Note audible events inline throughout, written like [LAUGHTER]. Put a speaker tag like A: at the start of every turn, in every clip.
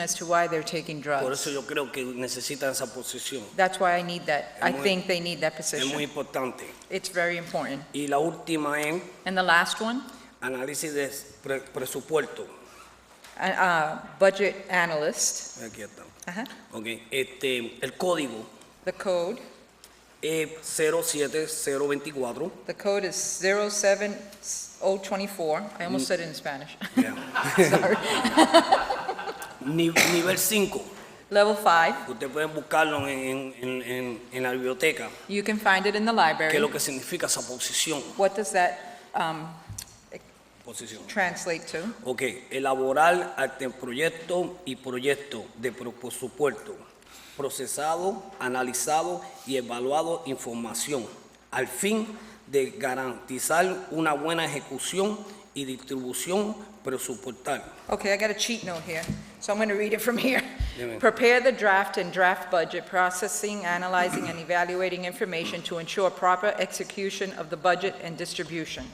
A: as to why they're taking
B: Por eso
A: drugs.
B: yo creo que necesitan esa posición.
A: That's why I need that. I
B: Es muy-
A: think they need that
B: Es muy
A: position.
B: importante.
A: It's very important.
B: Y la última es
A: And the last one,
B: análisis de pre- presupuesto.
A: uh, uh, budget analyst,
B: Aquí está.
A: uh-huh,
B: Ok, Este, el código
A: the code.
B: es 07024.
A: The code is 07024. I
B: Mm.
A: almost said it in Spanish. [LAUGHS]
B: Yeah.
A: Sorry.
B: Ni- nivel 5.
A: Level 5.
B: Ustedes pueden buscarlo en, en- en- en la biblioteca.
A: You can find it in the
B: ¿Qué es
A: library.
B: lo que significa esa posición?
A: What does that um,
B: posición?
A: translate to?
B: Ok, elaborar anteproyecto y proyecto de pro- presupuesto, procesado, analizado y evaluado información, al fin de garantizar una buena ejecución y distribución presupuestal.
A: Okay, I got a cheat note here, so I'm going to read it from here.
B: [LAUGHS] Yeah, ma'am.
A: Prepare the draft and draft budget, processing, analyzing, and evaluating information to ensure proper execution of the budget and distribution.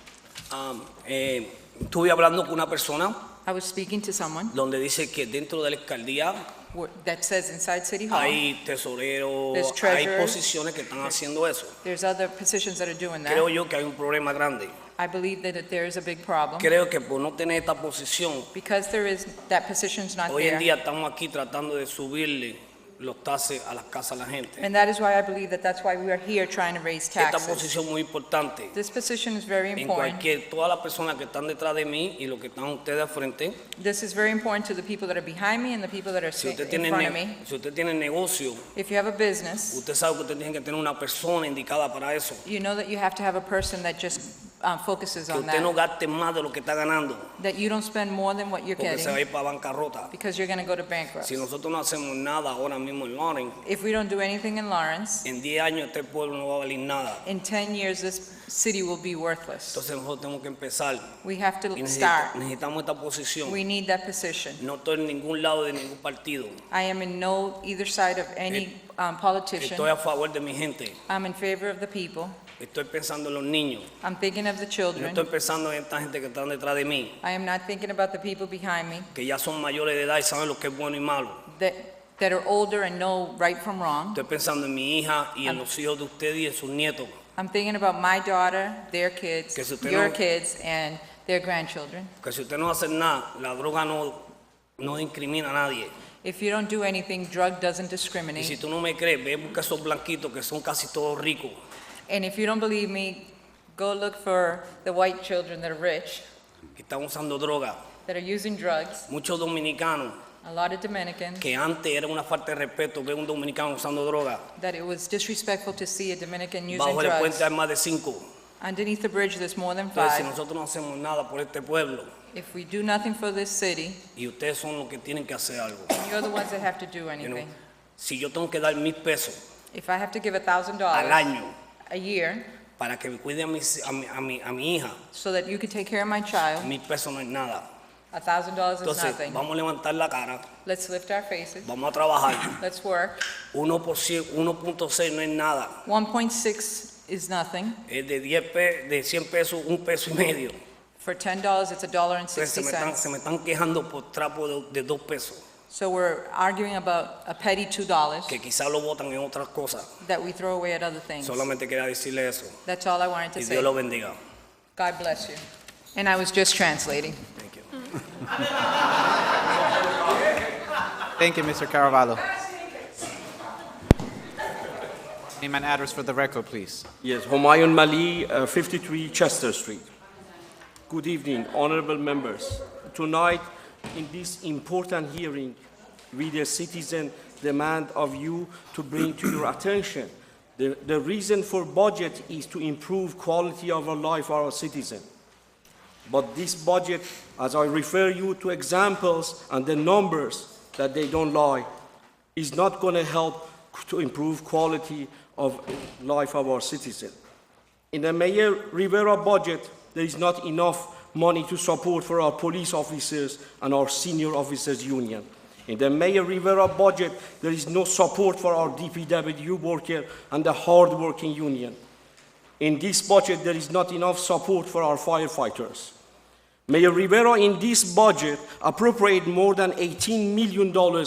B: Am, eh, estuve hablando con una persona
A: I was speaking to someone
B: donde dice que dentro de la alcaldía
A: wh- that says inside City Hall,
B: hay tesoreros,
A: Ah. There's
B: hay
A: treasurer.
B: posiciones que están haciendo eso.
A: there's other positions that are doing
B: Creo
A: that.
B: yo que hay un problema grande.
A: I believe that it- there is a big problem,
B: Creo que por no tener esta posición
A: because there is, that position's not
B: Hoy en
A: there.
B: día estamos aquí tratando de subirle los tases a las casas a la gente.
A: And that is why I believe that that's why we are here trying to raise
B: Esta
A: taxes.
B: posición muy importante.
A: This position is very
B: En
A: important.
B: cualquier, todas las personas que están detrás de mí y los que están ustedes al frente,
A: This is very important to the people that are behind me and the people that are si-
B: si usted,
A: in
B: tiene,
A: front of
B: ne-
A: me.
B: si usted tiene negocio,
A: If you have a business,
B: usted sabe que usted tiene que tener una persona indicada para eso.
A: you know that you have to have a person that just uh, focuses
B: Que
A: on
B: usted no
A: that,
B: gaste más de lo que está ganando,
A: that you don't spend more than what you're
B: porque se va a
A: getting,
B: ir para bancarrota.
A: because you're going to go to bankrupt.
B: Si nosotros no hacemos nada ahora mismo en Loren,
A: If we don't do anything in Lawrence,
B: en 10 años este pueblo no va a valer nada.
A: in 10 years, this city will be worthless.
B: Entonces nosotros tenemos que empezar.
A: We have
B: Y
A: to
B: necesit-
A: start.
B: necesitamos esta posición.
A: We need that position.
B: No estoy en ningún lado de ningún partido.
A: I am in no either side of any um, politician.
B: Eh, Estoy a favor de mi gente.
A: I'm in favor of the people.
B: Estoy pensando en los niños.
A: I'm thinking of the
B: No
A: children.
B: estoy pensando en esta gente que están detrás de mí,
A: I am not thinking about the people behind me
B: que ya son mayores de edad y saben lo que es bueno y malo.
A: that, that are older and know right from wrong.
B: Estoy pensando en mi hija y en los hijos de ustedes y en sus nietos.
A: I'm thinking about my daughter, their kids,
B: Que si usted
A: your
B: no-
A: kids, and their grandchildren.
B: Que si usted no hace nada, la droga no, no incrimina a nadie.
A: If you don't do anything, drug doesn't
B: Y si
A: discriminate.
B: tú no me crees, ve busca esos blanquitos que son casi todos ricos.
A: And if you don't believe me, go look for the white children that are rich,
B: que están usando droga.
A: that are using drugs,
B: Muchos dominicanos,
A: a lot of Dominicans,
B: que antes era una falta de respeto ver un dominicano usando droga.
A: that it was disrespectful to see a Dominican using
B: Bajo el puente
A: drugs.
B: hay más de cinco.
A: Underneath the bridge, there's more than
B: Entonces, si
A: five.
B: nosotros no hacemos nada por este pueblo,
A: If we do nothing for this city,
B: y ustedes son los que tienen que hacer algo.
A: you're the ones that have to do
B: you know.
A: anything.
B: Si yo tengo que dar mil pesos
A: If I have to give a thousand
B: al
A: dollars
B: año
A: a year
B: para que me cuide a, mis- a mi, a mi- a mi hija,
A: so that you can take care of my child,
B: mil pesos no es nada.
A: a thousand dollars is
B: Entonces,
A: nothing.
B: vamos a levantar la cara,
A: Let's lift our faces.
B: vamos a trabajar.
A: Let's work.
B: 1%, 1.6 no es nada.
A: 1.6 is nothing.
B: Es de, 10 pe- de 100 pesos, un peso y medio.
A: For $10, it's a dollar and 60
B: Entonces, se me, están,
A: cents.
B: se me están quejando por trapo de, de dos pesos,
A: So we're arguing about a petty $2
B: que quizás lo votan en otras cosas.
A: that we throw away at other things.
B: Solamente quería decirle eso.
A: That's all I wanted to
B: Y
A: say.
B: Dios lo bendiga.
A: God bless you. And I was just translating.
B: Thank you.
C: Thank you, Mr. Caravallo. Name and address for the record, please.
D: Yes, Homayon Mali, uh, 53 Chester Street. Good evening, honorable members. Tonight, in this important hearing, we the citizen demand of you to bring to your attention the, the reason for budget is to improve quality of our life for our citizen. But this budget, as I refer you to examples and the numbers that they don't lie, is not going to help to improve quality of life of our citizens. In the Mayor Rivera budget, there is not enough money to support for our police officers and our senior officers union. In the Mayor Rivera budget, there is no support for our DPW worker and the hard-working union. In this budget, there is not enough support for our firefighters. Mayor Rivera in this budget appropriated more than $18 million